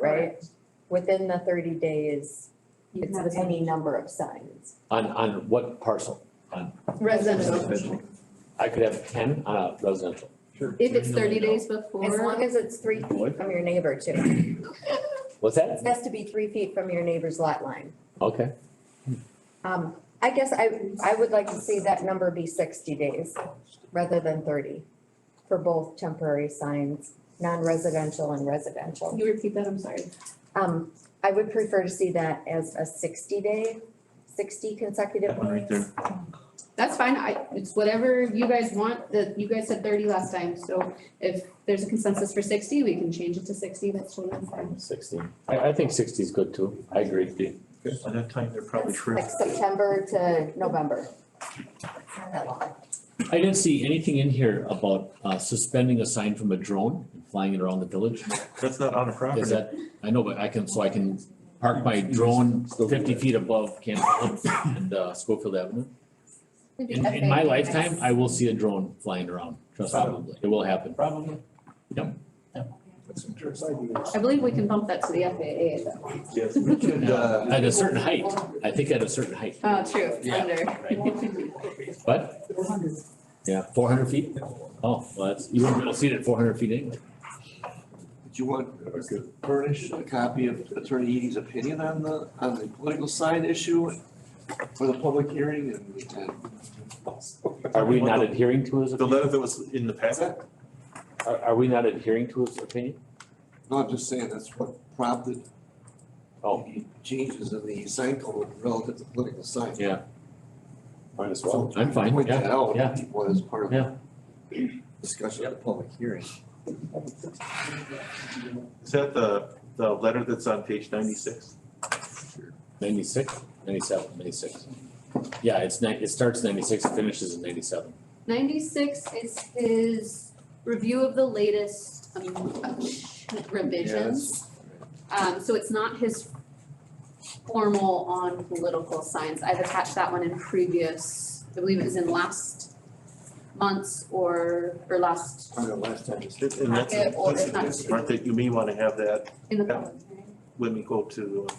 right? Within the thirty days, You it's have with any any- number of signs. On, on what parcel? Residential. I could have ten on a residential. If it's thirty days As long before, as it's three feet from your neighbor too. What's that? It has to be three feet from your neighbor's lot line. Okay, Um, I guess I, I would like to see that number be sixty days rather than thirty for both temporary signs, non-residential and residential. you repeat that, I'm sorry. Um, I would prefer to see that as a sixty day, sixty consecutive That one right there. That's fine, I, it's whatever you guys want, that, you guys said thirty last time, so if there's a consensus for sixty, we can change it to sixty, that's totally fine. sixty. I, I think sixty is good too. I agree. By that time, they're probably shriveled. Like September to November. It's not that long. I didn't see anything in here about uh, suspending a sign from a drone and flying it around the village. That's not on a Is property. that, I know, but I can, so I can park my drone fifty feet above Camp Hill and uh, Schofield Avenue. In, in my lifetime, I will see a drone flying around, trust probably. It will happen. Probably. Yep. That's some jerks I do. I believe we can bump that to the FAA at that point. Yes. We could, uh, At a certain height. I think at a certain height. Oh, true, Yeah. under. What? Yeah, four hundred feet? Oh, well, that's, you wouldn't be able to see it at four hundred feet anyway. Do you want to furnish a copy of Attorney Eady's opinion on the, on the political sign issue for the public hearing and, and Are we not adhering to his, The letter that was in the packet? are, are we not adhering to his opinion? no, I'm just saying that's what prompted Oh, changes in the sign code relative to political signs. Yeah. Might as well. I'm fine, Point that yeah, out, yeah. was part of Yeah. the discussion at the public hearing. Is that the, the letter that's on page ninety-six? ninety-six, ninety-seven, ninety-six. Yeah, it's nine, it starts ninety-six, it finishes in ninety-seven. Ninety-six is his review of the latest um, revisions. Um, so it's not his formal on political science. I've attached that one in previous, I believe it was in last month's or, or last, Part of last time. And and that's, Packet or it's not- that's, Mark, that you may wanna have that in the public hearing. when we go to, um,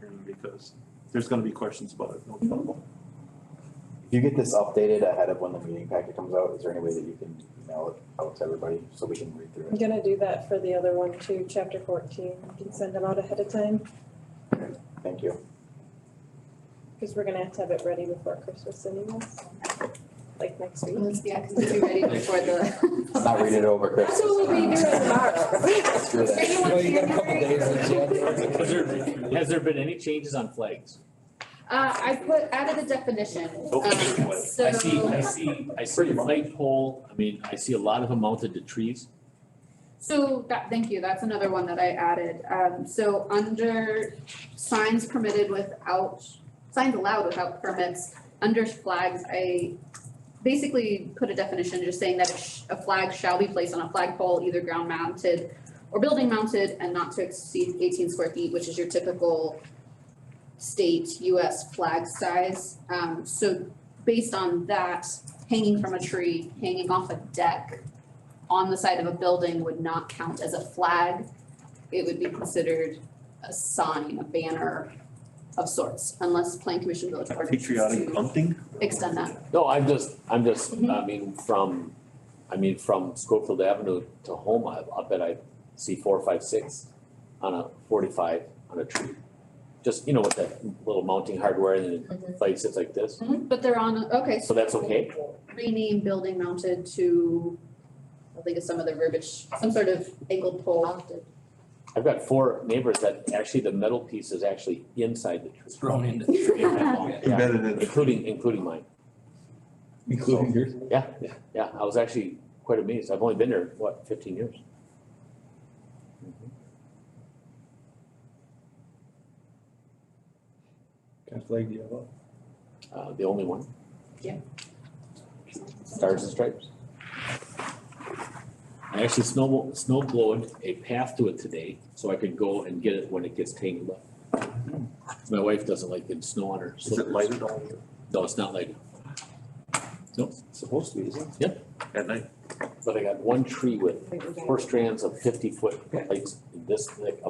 hearing because there's gonna be questions about it, no problem. If you get this updated ahead of when the meeting packet comes out, is there any way that you can email it out to everybody so we can read through I'm it? gonna do that for the other one too, chapter fourteen, you can send them out ahead of time, Thank you. because we're gonna have to have it ready before Christmas anyways. Like next week. Yeah, because it'll be ready before the. Let's not read it over, Chris. That's what we'll be doing tomorrow. Screw that. Anyone you got a couple January? days in January. Has there, has there been any changes on flags? Uh, I put, added a definition, um, Okay. so. I see, I see, I see a light pole, I mean, I see a lot of them mounted to trees. So that, thank you, that's another one that I added, um, so under signs permitted without, signs allowed without permits, under flags, I basically put a definition just saying that a sh- a flag shall be placed on a flagpole, either ground mounted or building mounted, and not to exceed eighteen square feet, which is your typical state US flag size, um, so based on that, hanging from a tree, hanging off a deck, on the side of a building would not count as a flag. It would be considered a sign, a banner of sorts, unless Plan Commission Village Board wishes Patriotic to bunting? extend that. No, I'm just, I'm just, Mhm. I mean, from, I mean, from Schofield Avenue to home, I, I bet I see four, five, six on a forty-five on a tree. Just, you know, with that little mounting hardware and then it like sits like this, But they're on, okay, so so that's okay? rename building mounted to, I think it's some other verbiage, some sort of angled pole. I've got four neighbors that actually the metal piece is actually inside the tree. Thrown into. Yeah, Embedded in. Including, including mine. Including yours? Yeah, yeah, yeah, I was actually quite amazed. I've only been there, what, fifteen years? Mm-hmm. Got flagged yellow. Uh, the only one, stars Stars. and stripes. I actually snow, snow blowed a path to it today, so I could go and get it when it gets tangled up. My wife doesn't like getting snow on her Is it slippers. lighted all year No, it's not lighted, Supposed to be, isn't it? at night? but I got one tree with Wait, we got- four strands of fifty foot lights this thick of